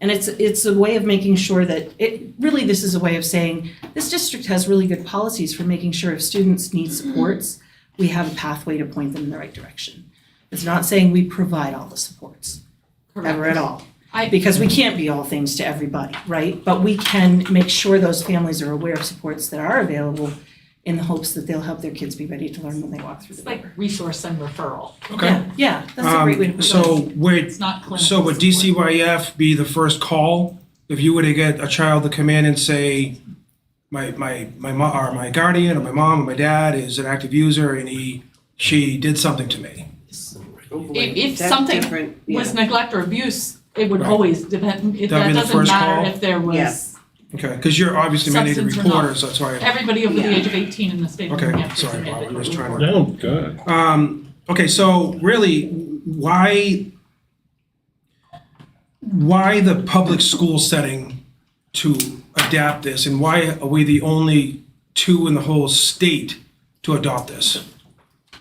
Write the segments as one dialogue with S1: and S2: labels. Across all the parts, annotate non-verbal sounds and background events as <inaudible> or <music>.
S1: And it's, it's a way of making sure that, it, really, this is a way of saying, this district has really good policies for making sure if students need supports, we have a pathway to point them in the right direction. It's not saying we provide all the supports, ever at all.
S2: I-
S1: Because we can't be all things to everybody, right? But we can make sure those families are aware of supports that are available in the hopes that they'll help their kids be ready to learn when they walk through the
S2: It's
S1: door.
S2: like resource and referral.
S1: Yeah, yeah, that's a great way to put it.
S3: Um, So would,
S2: It's not clinical.
S3: so would
S2: support.
S3: DCYF be the first call if you were to get a child to come in and say, my, my, my mo- or my guardian or my mom or my dad is an active user and he, she did something to me?
S2: If, if
S4: That's
S2: something
S4: different, yeah.
S2: was neglect or abuse, it would
S3: Right.
S2: always depend, if
S3: That'd
S2: that
S3: be the
S2: doesn't
S3: first
S2: matter
S3: call?
S2: if there was,
S4: Yes.
S3: Okay, because you're obviously mandated
S2: Substance or not.
S3: reporters, that's why.
S2: everybody over the
S4: Yeah.
S2: age of eighteen in the state of New
S3: Okay,
S2: Hampshire. is
S3: sorry, Bob, I
S2: mandated.
S3: was trying to.
S5: No, good.
S3: Um, okay, so really, why, why the public school setting to adapt this? And why are we the only two in the whole state to adopt this?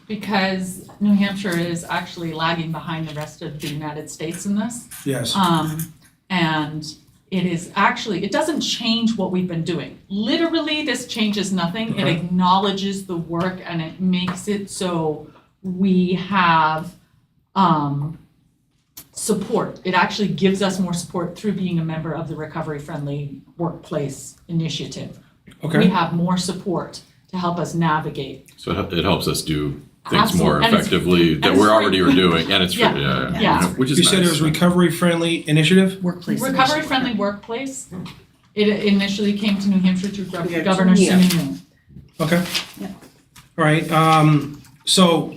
S2: Because New Hampshire is actually lagging behind the rest of the United States in this.
S3: Yes,
S2: Um, and it is actually, it doesn't change what we've been doing. Literally, this changes nothing. It
S3: Okay.
S2: acknowledges the work and it makes it so we have, um, support. It actually gives us more support through being a member of the Recovery Friendly Workplace Initiative. We
S3: okay,
S2: have more support to help us navigate.
S5: So it hel- it helps us do things
S2: Absolute-
S5: more
S2: and it's-
S5: effectively that
S2: and it's
S5: we're
S2: free.
S5: already are doing, and it's free,
S2: Yeah,
S5: yeah, yeah, yeah,
S2: yeah.
S5: you know, which is
S3: you said it
S5: nice.
S3: was recovery-friendly initiative?
S1: Workplace.
S2: Recovery Friendly Workplace, it initially came to New Hampshire through
S4: Yeah,
S2: Gov- Governor
S4: yeah.
S2: Sununu.
S3: Okay.
S1: Yeah.
S3: All right, um, so,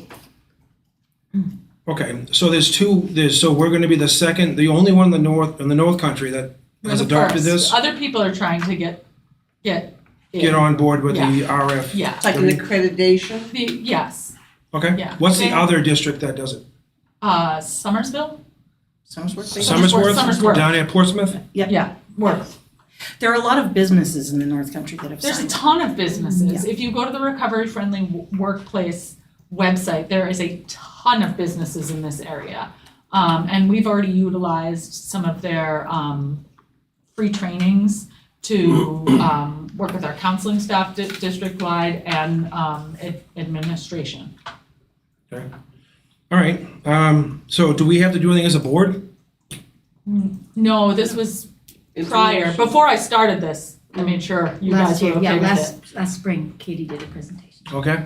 S3: okay, so there's two, there's, so we're gonna be the second, the only one in the north, in the north country that
S2: We're
S3: has
S2: the
S3: adopted
S2: first.
S3: this?
S2: Other people are trying to get, get. in.
S3: Get on board with the RF?
S2: Yeah,
S4: Like an accreditation?
S2: the, yes,
S3: Okay,
S2: Yeah.
S3: what's the
S2: They-
S3: other district that does it?
S2: uh, Somersville,
S1: Sounds worth it.
S3: Somersworth?
S2: Somersworth.
S3: Down at Portsmouth?
S1: Yep.
S2: yeah, Worth.
S1: There are a lot of businesses in the North Country that have
S2: There's a
S1: signed.
S2: ton of businesses, if you go to the Recovery Friendly W- Workplace website, there is a ton of businesses in this area. Um, and we've already utilized some of their, um, free trainings
S3: <clears throat>
S2: to, um, work with our counseling staff di- district-wide and, um, ad- administration.
S3: All right, um, so do we have to do anything as a board?
S2: No, this was prior,
S4: Information.
S2: before I started this, I made sure you guys
S6: Last
S2: were
S6: year, yeah,
S2: okay with it.
S6: last, last spring, Katie did a presentation.
S3: Okay,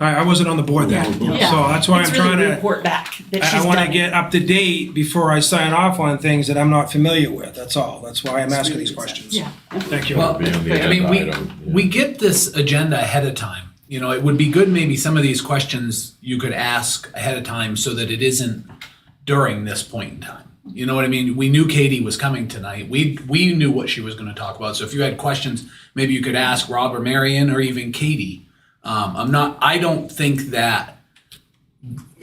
S3: I, I wasn't on the board then, so
S2: Yeah. Yeah.
S3: that's why I'm
S1: It's really
S3: trying
S1: a
S3: to,
S1: report back that
S3: I,
S1: she's
S3: I wanna
S1: done it.
S3: get up to date before I sign off on things that I'm not familiar with, that's all, that's why I'm
S1: It's
S3: asking
S1: really
S3: these
S1: good
S3: questions.
S2: sense.
S3: Thank you.
S7: Well,
S5: Be on the
S7: I mean, we,
S5: agenda item, yeah.
S7: we get this agenda ahead of time. You know, it would be good maybe some of these questions you could ask ahead of time so that it isn't during this point in time. You know what I mean? We knew Katie was coming tonight. We, we knew what she was gonna talk about. So if you had questions, maybe you could ask Rob or Marion or even Katie. Um, I'm not, I don't think that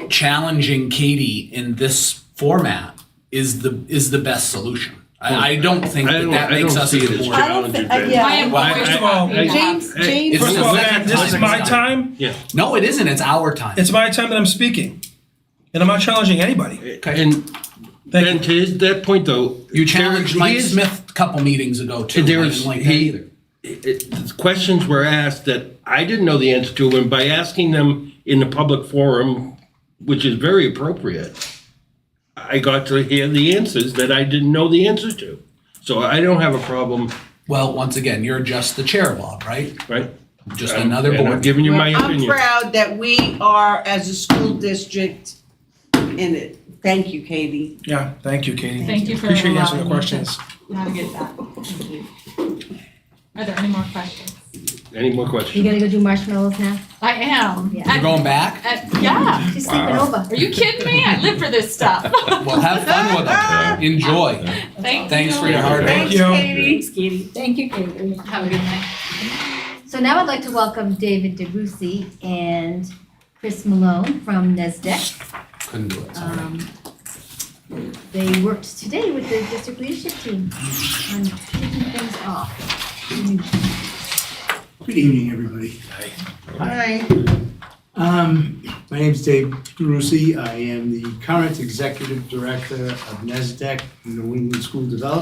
S7: challenging Katie in this format is the, is the best solution. I, I don't think
S5: I
S7: that
S5: don't-
S7: that
S5: I
S7: makes
S5: don't
S7: us
S5: see
S7: as
S5: it
S7: a
S5: as
S7: board.
S4: I don't
S5: Challenge
S4: thi- uh,
S5: event.
S4: yeah.
S2: I am
S7: Well,
S2: always
S5: I-
S2: happy to
S5: I-
S2: have-
S4: James, James.
S7: It's
S3: First
S7: the
S3: of all,
S7: second
S3: this is
S7: time
S3: my
S7: it's
S3: time,
S5: Yeah.
S7: No, it isn't. It's our time.
S3: it's my time that I'm speaking, and I'm not challenging anybody,
S5: And, and
S3: thank you.
S5: to his- that point though. there-
S7: you challenged Mike
S5: his-
S7: Smith a couple meetings ago too.
S5: And there
S7: I
S5: was-
S7: didn't like that
S5: he-
S7: either.
S5: it- the Questions were asked that I didn't know the answer to, and by asking them in the public forum, which is very appropriate, I got to hear the answers that I didn't know the answer to. So I don't have a problem,
S7: Well, once again, you're just the chair, Bob, right?
S5: right?
S7: Just
S5: Um,
S7: another
S5: and I'm
S7: board.
S5: giving you my
S4: I'm
S5: opinion.
S4: proud that we are, as a school district, in it. Thank you, Katie.
S3: Yeah, thank you, Katie.
S2: Thank you for
S3: Appreciate you answering the
S2: allowing me to-
S3: questions.
S2: navigate that. Thank you. Are there any more questions?
S5: Any more
S6: You
S5: questions?
S6: gonna go do marshmallows now?
S2: I am.
S6: Yeah.
S7: You're
S2: I-
S7: going back.
S2: I- Yeah,
S6: She's sleeping over.
S2: are you kidding me? I live for this stuff.
S7: Well, have fun with them. Enjoy.
S2: <laughs> Thank you.
S7: Thanks for your hard work.
S3: Thank you.
S1: Thanks, Katie.
S6: Thank you, Katie.
S2: Have a good night.
S6: So now I'd like to welcome David DeRusi and Chris Malone from NESDEC.
S7: Couldn't do it. sorry.
S6: Um, They worked today with the district leadership team on taking things off.
S8: Good evening, everybody.
S4: Hi.
S8: Um, My name's Dave Drusi. I am the current Executive Director of NESDEC, New England School Development.